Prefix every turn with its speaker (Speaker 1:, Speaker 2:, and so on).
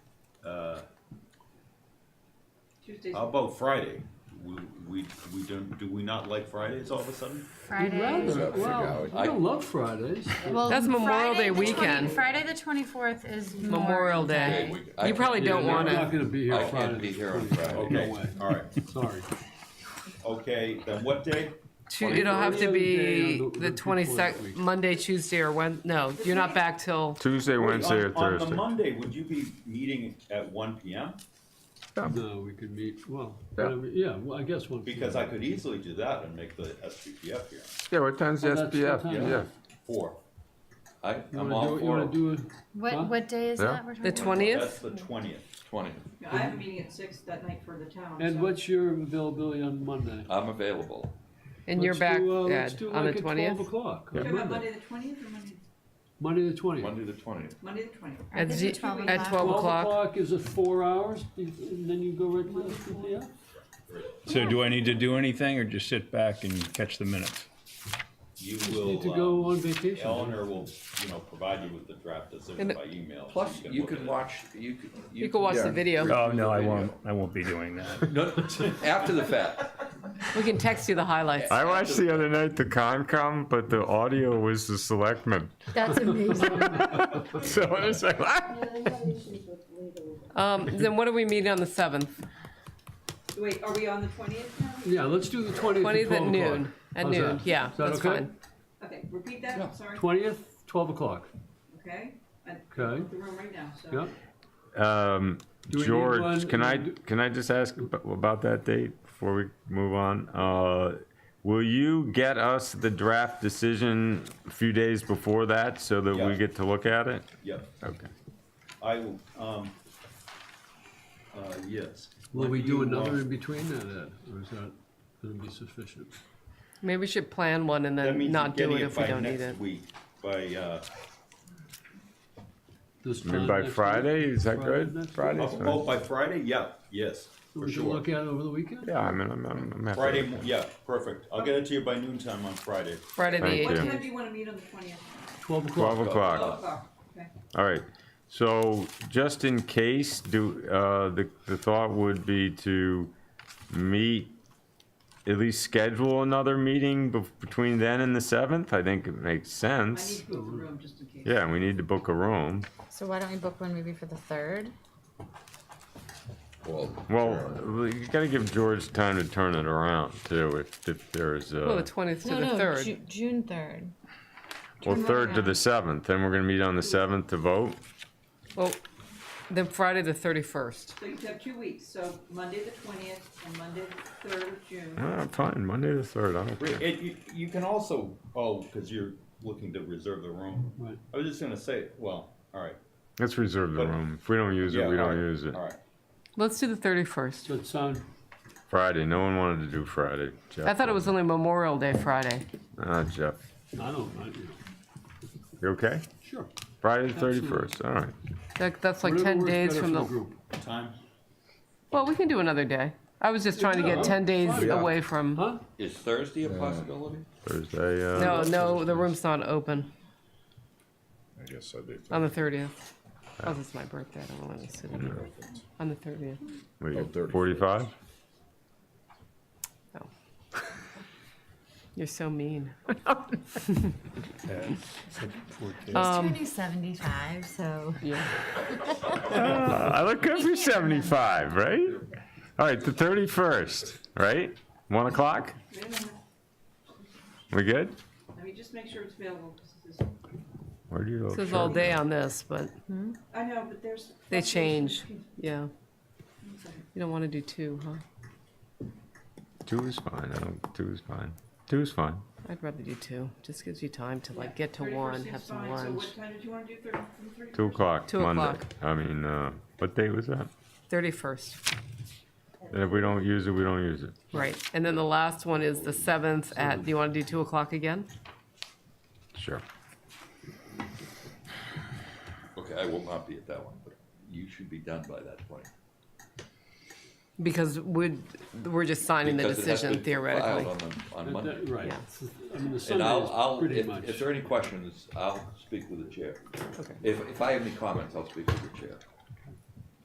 Speaker 1: Tuesdays.
Speaker 2: How about Friday? We, we, we don't, do we not like Fridays all of a sudden?
Speaker 3: We'd
Speaker 4: Friday.
Speaker 3: rather,
Speaker 5: Up for
Speaker 3: well,
Speaker 5: Howard.
Speaker 3: I don't love Fridays.
Speaker 4: Well,
Speaker 6: That's Memorial
Speaker 4: Friday
Speaker 6: Day
Speaker 4: the 20
Speaker 6: weekend.
Speaker 4: Friday the twenty-fourth is
Speaker 6: Memorial Day.
Speaker 5: Day. we- I
Speaker 6: You probably
Speaker 5: can-
Speaker 6: don't
Speaker 3: Yeah,
Speaker 6: want
Speaker 3: I'm not
Speaker 6: to.
Speaker 3: gonna be here
Speaker 5: I
Speaker 3: Friday.
Speaker 5: can't be here on
Speaker 3: please.
Speaker 5: Friday.
Speaker 3: No
Speaker 2: Okay,
Speaker 3: way,
Speaker 2: all right,
Speaker 3: sorry.
Speaker 2: okay, then what day?
Speaker 6: It'll have to be
Speaker 3: Yeah, the-
Speaker 6: the
Speaker 3: the
Speaker 6: 22nd,
Speaker 3: week.
Speaker 6: Monday, Tuesday, or Wednesday. No, you're not back till,
Speaker 7: Tuesday, Wednesday, or
Speaker 2: On- On the
Speaker 7: Thursday.
Speaker 2: Monday, would you be meeting at one PM?
Speaker 3: No, we could meet, well,
Speaker 7: Yeah.
Speaker 3: whatever- yeah, well, I guess one.
Speaker 2: Because I could easily do that and make the SPPF here,
Speaker 7: Yeah, what time's the
Speaker 3: Well, Oh, that's
Speaker 7: SPF?
Speaker 3: what time.
Speaker 7: Yeah,
Speaker 2: four.
Speaker 5: I,
Speaker 3: You
Speaker 5: I'm
Speaker 3: wanna
Speaker 5: all
Speaker 3: do- You
Speaker 5: for
Speaker 3: wanna
Speaker 5: it.
Speaker 3: do, it? Huh?
Speaker 4: What, what day is
Speaker 7: Yeah.
Speaker 4: that? we're talking
Speaker 6: The
Speaker 4: about?
Speaker 6: 20th?
Speaker 2: That's the twentieth.
Speaker 5: Twenty.
Speaker 1: No, I have a meeting at six that night for the town. so-
Speaker 3: and what's your availability on Monday?
Speaker 5: I'm available.
Speaker 6: and you're
Speaker 3: Let's
Speaker 6: back,
Speaker 3: do, uh, let's
Speaker 6: Ed,
Speaker 3: do
Speaker 6: on the
Speaker 3: like at Twelve
Speaker 6: 20th.
Speaker 3: o'clock,
Speaker 1: Talking about
Speaker 3: Monday,
Speaker 1: Monday the twentieth or Monday,
Speaker 3: Monday the twentieth.
Speaker 5: Monday the twentieth.
Speaker 1: Monday the twentieth?
Speaker 4: I
Speaker 6: At
Speaker 4: think
Speaker 6: z-
Speaker 4: it's 12
Speaker 6: at
Speaker 4: o'clock.
Speaker 6: 12
Speaker 3: Twelve
Speaker 6: o'clock.
Speaker 3: o'clock is a four hours, and then you go right to the SPF?
Speaker 8: So do I need to do anything or just sit back and catch the minutes?
Speaker 2: You
Speaker 3: Need to
Speaker 2: will,
Speaker 5: uh,
Speaker 3: go
Speaker 2: um,
Speaker 3: on vacation.
Speaker 2: Eleanor will, you know, provide you with the draft decision
Speaker 6: And-
Speaker 2: by email. so
Speaker 5: Plus, you
Speaker 2: look at
Speaker 5: can
Speaker 2: it.
Speaker 5: watch, you could.
Speaker 6: You can watch the
Speaker 5: yeah.
Speaker 6: video.
Speaker 8: Oh, no, I won't, I won't be doing that.
Speaker 5: No, after the fact.
Speaker 6: We can text you the highlights.
Speaker 7: I watched the other night the Concom, but the audio was the Selectmen.
Speaker 4: That's amazing.
Speaker 7: So I was like, what?
Speaker 6: Um, Then what are we meeting on the 7th?
Speaker 1: Wait, are we on the twentieth now?
Speaker 3: Yeah, let's do the twentieth at
Speaker 6: 20th at
Speaker 3: twelve o'clock.
Speaker 6: noon. At
Speaker 3: How's
Speaker 6: noon,
Speaker 3: that?
Speaker 6: yeah,
Speaker 3: Is that
Speaker 6: that's
Speaker 3: okay?
Speaker 6: fine.
Speaker 1: Okay, repeat that, I'm sorry,
Speaker 3: Twentieth, twelve o'clock,
Speaker 1: okay? I-
Speaker 3: okay,
Speaker 1: The room right now, so.
Speaker 3: yeah.
Speaker 7: Um,
Speaker 3: Do we need one-
Speaker 7: George, can I,
Speaker 3: do-
Speaker 7: can I just ask ab- about that date before we move on? Uh, will you get us the draft decision a few days before that so that
Speaker 2: Yeah.
Speaker 7: we get to look at it?
Speaker 2: Yep,
Speaker 7: Okay.
Speaker 2: I will, um, uh, yes.
Speaker 3: Will we
Speaker 2: When
Speaker 3: do
Speaker 2: you,
Speaker 3: another
Speaker 2: um,
Speaker 3: in between that, Ed, or is that gonna be sufficient?
Speaker 6: Maybe we should plan one and
Speaker 2: That
Speaker 6: then
Speaker 2: means you're
Speaker 6: not do
Speaker 2: getting
Speaker 6: it
Speaker 2: it
Speaker 6: if we
Speaker 2: by
Speaker 6: don't need it.
Speaker 2: next week, by, uh,
Speaker 3: This
Speaker 7: I mean,
Speaker 3: time
Speaker 7: by
Speaker 3: next week?
Speaker 7: Friday, is that good?
Speaker 3: next week?
Speaker 7: Friday?
Speaker 2: oh, oh, by Friday, yeah, yes, for
Speaker 3: We can
Speaker 2: sure.
Speaker 3: look at it over the weekend?
Speaker 7: Yeah, I mean, I'm, I'm, I'm happy.
Speaker 2: Friday, mo- yeah, perfect. I'll get it to you by noon time on Friday.
Speaker 6: Friday the
Speaker 7: Thank
Speaker 1: What
Speaker 6: 8th.
Speaker 7: you.
Speaker 1: time do you wanna meet on the twentieth?
Speaker 3: Twelve o'clock.
Speaker 7: Twelve
Speaker 2: Uh,
Speaker 7: o'clock.
Speaker 1: Twelve o'clock, okay.
Speaker 7: All right, so just in case, do, uh, the, the thought would be to meet, at least schedule another meeting bef- between then and the seventh, I think it makes
Speaker 1: I need
Speaker 7: sense.
Speaker 1: to book the room just in case.
Speaker 7: Yeah, we need to book a room.
Speaker 4: So why don't we book one maybe for the third?
Speaker 5: Well,
Speaker 7: Well, you gotta give George time to turn it around too, if, if there's,
Speaker 6: Well, Oh, the
Speaker 7: uh,
Speaker 6: 20th to the 3rd.
Speaker 4: Ju- June third.
Speaker 7: well,
Speaker 4: turn it
Speaker 7: third to
Speaker 4: around.
Speaker 7: the seventh, then we're gonna meet on the seventh to vote.
Speaker 6: Well, Oh, then Friday the 31st.
Speaker 1: So you have two weeks, so Monday the twentieth and Monday the third of June.
Speaker 7: Ah, fine, Monday the third, I don't care.
Speaker 2: It, you, you can also, oh, because you're looking to reserve the room.
Speaker 3: Right.
Speaker 2: I was just gonna say, well, all right.
Speaker 7: Let's reserve the
Speaker 2: But-
Speaker 7: room, if we don't use it,
Speaker 2: Yeah,
Speaker 7: we
Speaker 2: all
Speaker 7: don't
Speaker 2: right,
Speaker 7: use it.
Speaker 2: All right.
Speaker 6: Let's do the 31st.
Speaker 3: Does that sound,
Speaker 7: Friday. No one wanted to do Friday. Jeff
Speaker 6: I thought it was only Memorial Day Friday.
Speaker 7: Ah, Jeff.
Speaker 3: I don't mind, you know,
Speaker 7: You okay?
Speaker 3: sure.
Speaker 7: Friday the
Speaker 3: Absolutely.
Speaker 7: 31st. All right.
Speaker 6: That, that's like
Speaker 3: Whatever
Speaker 6: 10
Speaker 3: works
Speaker 6: days
Speaker 3: better
Speaker 6: from
Speaker 3: for
Speaker 6: the.
Speaker 3: group.
Speaker 2: Time,
Speaker 6: Well, we can do another day. I was just trying to
Speaker 3: Yeah,
Speaker 6: get 10 days
Speaker 3: fine.
Speaker 6: away from.
Speaker 3: Huh?
Speaker 5: is Thursday a possibility?
Speaker 7: Thursday.
Speaker 6: No,
Speaker 7: Uh,
Speaker 6: no, the room's not open
Speaker 5: I guess I do.
Speaker 6: on the 30th. Oh, that's my birthday. I don't want to sit in there. On the 30th.
Speaker 7: wait,
Speaker 5: Oh, 31st.
Speaker 7: 45?
Speaker 6: You're so mean. Um,
Speaker 4: He's turning seventy-five, so.
Speaker 6: Yeah.
Speaker 7: Uh, I look good for 75, right? All right, the 31st, right? 1 o'clock?
Speaker 1: Wait a minute,
Speaker 7: We good?
Speaker 1: let me just make sure it's available. 'cause this is-
Speaker 7: Where do you
Speaker 6: This is all day on this, but
Speaker 1: I know, but there's.
Speaker 6: they change. Yeah.
Speaker 1: One second.
Speaker 6: You don't want to do two, huh?
Speaker 7: 2 is fine. I don't, 2 is fine. 2 is fine.
Speaker 6: I'd rather do two. Just gives you time to like get to
Speaker 1: 31st
Speaker 6: one,
Speaker 1: is
Speaker 6: have some
Speaker 1: fine. So
Speaker 6: lunch.
Speaker 1: what time did you wanna do thirty, from three?
Speaker 7: 2 o'clock
Speaker 6: Two
Speaker 7: Monday.
Speaker 6: o'clock.
Speaker 7: I mean, uh, what day was that?
Speaker 6: 31st.
Speaker 7: And if we don't use it, we don't use it.
Speaker 6: Right. And then the last one is the 7th at, do you want to do 2 o'clock again?
Speaker 7: Sure.
Speaker 5: Okay, I will not be at that one, but you should be done by that point.
Speaker 6: Because we'd, we're just signing the
Speaker 5: Because it has
Speaker 6: decision
Speaker 5: been filed
Speaker 6: theoretically.
Speaker 5: On, the- on
Speaker 3: That-
Speaker 5: Monday.
Speaker 3: that- Right.
Speaker 6: Yeah.
Speaker 3: I mean, the
Speaker 5: And I'll,
Speaker 3: Sunday is
Speaker 5: I'll,
Speaker 3: pretty
Speaker 5: if,
Speaker 3: much.
Speaker 5: if there are any questions, I'll speak with the chair.
Speaker 6: Okay.
Speaker 5: If, if I have any comments, I'll speak with the chair.